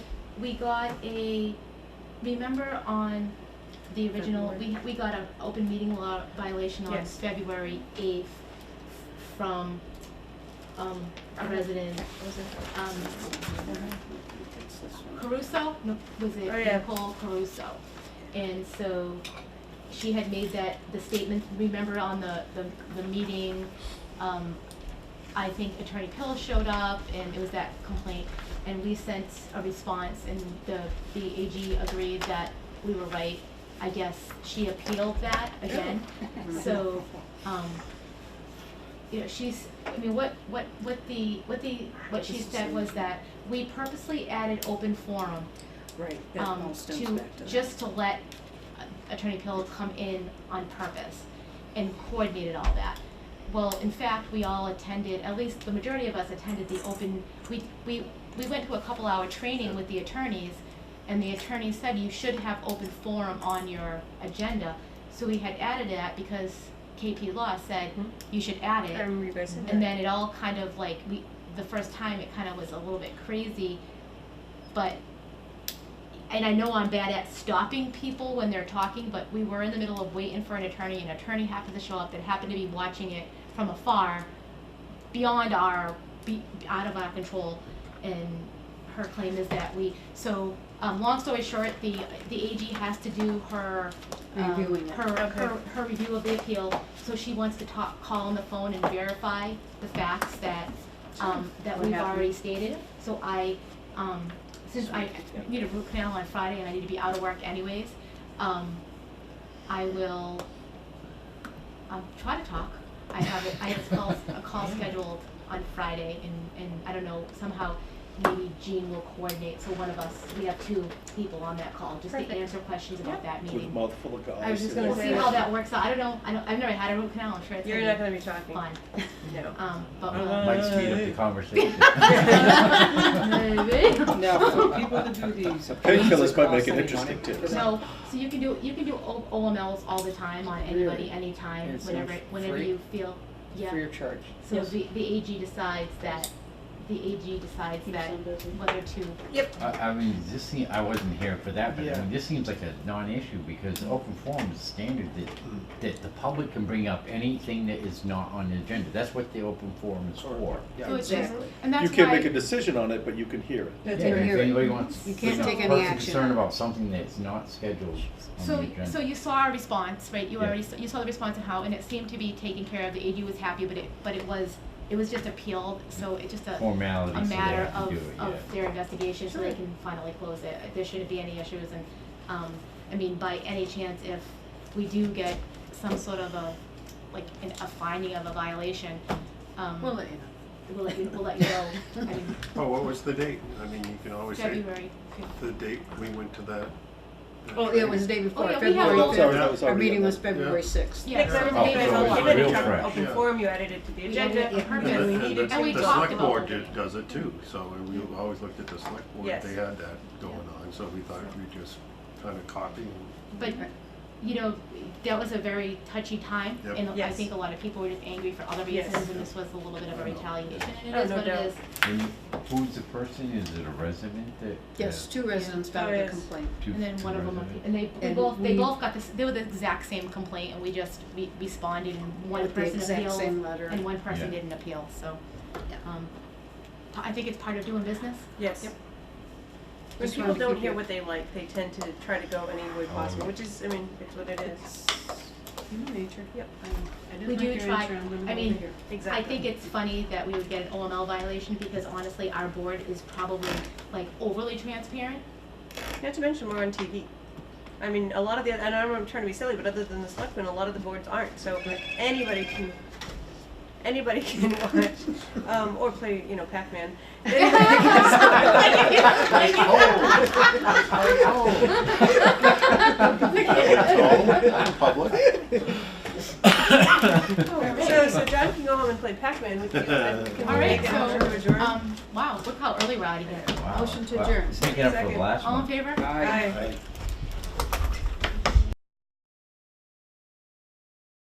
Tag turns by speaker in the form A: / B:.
A: we got a, remember on the original, we, we got an open meeting law violation on
B: Yes.
A: February eighth from, um, a resident,
B: Was it?
A: um, Caruso, no, was it
B: Oh, yeah.
A: Nicole Caruso? And so she had made that, the statement, remember on the, the, the meeting, um, I think Attorney Pill showed up and it was that complaint. And we sent a response and the, the AG agreed that we were right. I guess she appealed that again. So, um, you know, she's, I mean, what, what, what the, what the, what she said was that we purposely added open forum,
C: Right, that
A: um,
C: all stems
A: to,
C: back to that.
A: just to let uh, Attorney Pill come in on purpose and coordinated all that. Well, in fact, we all attended, at least the majority of us attended the open, we, we, we went to a couple hour training with the attorneys and the attorney said you should have open forum on your agenda. So we had added that because KP Law said
C: Mhm.
A: you should add
B: I
A: it.
B: remember you guys said that.
A: And then it all kind of like we the first time it kind of was a little bit crazy, but and I know I'm bad at stopping people when they're talking, but we were in the middle of waiting for an attorney. An attorney happened to show up that happened to be watching it from afar, beyond our be, out of our control. And her claim is that we so. Um, long story short, the the AG has to do her um,
C: Reviewing it.
A: her her, her review of the appeal, so she wants to talk, call on the phone and verify the facts that, um, that
C: What
A: we've
C: happened?
A: already stated. So I, um, since I need a root canal on Friday and I need to be out of work anyways, um, I will, um, try to talk. I have, a- I have a call, a call scheduled on Friday and, and I don't know, somehow maybe Jean will coordinate, so one of us, we have two people on that call, just to
B: Perfect.
A: answer questions about that meeting.
D: With a mouthful of gauze.
B: I was just
D: and
B: gonna
A: We'll
D: then-
A: see how that works out. I don't know. I don't, I've never had a root canal. I'm sure it's
B: You're not
A: gonna
B: gonna be talking.
A: be fun.
B: No.
A: Um, but
E: Might speed up the conversation.
A: we'll, maybe.
F: Now, for people to do these.
D: Painkillers might make
F: please,
D: it
F: it
D: interesting
F: costs
D: too.
F: any money.
A: So, so you can do you can do O- OMLs all the time on anybody,
F: Really?
A: anytime,
F: And it's
A: whenever
F: not
A: whenever
F: free?
A: you feel. Yeah.
F: Free of charge.
A: So the, the AG decides that the AG decides
C: Keeps
A: that
C: them busy.
A: whether to
E: I, I mean, this seem, I wasn't here for that, but I
D: Yeah.
E: mean, this seems like a non-issue because open forum is standard that, that the public can bring up anything that is not on the agenda. That's what the open forum is for.
D: Yeah.
A: so it's
C: Exactly.
A: just, and that's
D: You can't
A: why
D: make a decision on it, but you can hear it.
E: Yeah,
C: That's
E: and
C: what
E: if
C: you're-
E: anybody wants,
C: You
E: you
C: can't
E: know,
C: take any
E: person
C: action.
E: concerned about something that's not scheduled on the
A: So,
E: agenda.
A: so you saw our response, right? You
E: Yeah.
A: already, saw- you saw the response and how, and it seemed to be taken care of. The AG was happy, but it, but it was, it was just appealed, so it just a,
E: Formality,
A: a
E: so they
A: matter
E: have
A: of,
E: to do it, yeah.
A: of their investigation, so they
B: Sure.
A: can finally close it. There shouldn't be any issues and, um, I mean, by any chance, if we do get some sort of a, like, an, a finding of a violation, um,
C: We'll
A: we'll
C: let you
A: let you,
C: know.
A: we'll let you know. I mean,
G: Well, Oh, what was the date? I mean, you can always say
A: February fif-
G: the date we went to that. that
C: Oh, it
G: training.
C: was the day before,
A: yeah, we have a
C: February
D: Oh,
A: little-
D: it's
C: fifth.
D: already- that was
C: Our
D: already
C: meeting
D: in
C: was
D: there.
C: February sixth.
A: Yeah,
B: Because
A: so
E: Oh,
B: everybody
E: so
B: was
E: it's
B: you didn't
E: real
B: have
E: fresh.
B: open
G: Yeah.
B: forum, you added it to the
A: We
B: agenda.
A: added it
B: and
G: And
A: Yes,
B: we
G: the-
B: needed
G: the-
A: and we
B: to-
G: The
A: talked
G: select
A: about
G: board
A: it.
G: did- does it too, so we always looked at the select board,
B: Yes.
G: they had that going on, so we thought we'd just kind of copy. and-
A: But, you know, that was a very touchy time,
G: Yep.
A: and I
B: Yes.
A: think a lot of people were just angry for other
B: Yes.
A: reasons, and this was a little bit of a retaliation, and it
B: Oh,
A: is
B: no
A: what it
B: doubt.
A: is.
E: And who's the person? Is it a resident that? uh,
C: Yes, two residents filed
B: Oh,
C: a
B: yes.
C: complaint.
E: two-
A: And then
E: two
A: one of them,
E: residents?
A: and they, we
C: And
A: both, they
C: we-
A: both got this, they were the exact same complaint, and we just, we responded, and one
C: With the
A: person
C: exact
A: appealed,
C: same letter.
A: and one person
E: Yeah.
A: didn't appeal, so.
C: Yeah.
A: um, p- I think it's part of doing business.
B: Yes.
A: Yep.
B: When
C: Just
B: people
C: wanted to
B: don't
C: give
B: hear
C: you-
B: what they like, they tend to try to go any way
E: Oh.
B: possible, which is, I mean, it's what it is.
C: Human nature.
B: Yep.
C: Um, I didn't
A: We do
C: like your
A: try-
C: answer, I'm gonna
A: I
C: go
A: mean,
C: over here.
A: I
B: Exactly.
A: think it's funny that we would get an OML violation, because honestly, our board is probably like overly transparent,
B: Not to mention we're on TV. I mean, a lot of the, and I know I'm trying to be silly, but other than the selectmen, a lot of the boards aren't, so anybody can, anybody can watch, um, or play, you know, Pac-Man. Anybody can-
E: oh!
G: That was all in Public.
B: So, so John can go home and play Pac-Man with you. Can we
A: All right,
B: make a
A: so,
B: motion to adjourn?
A: Um, wow, look how early we're out of here.
E: Wow.
C: Motion to
E: Wow.
C: adjourn.
E: Sneaking up for the
B: Second.
E: last one.
A: All in favor?
F: Aye.
B: Aye.
D: Right.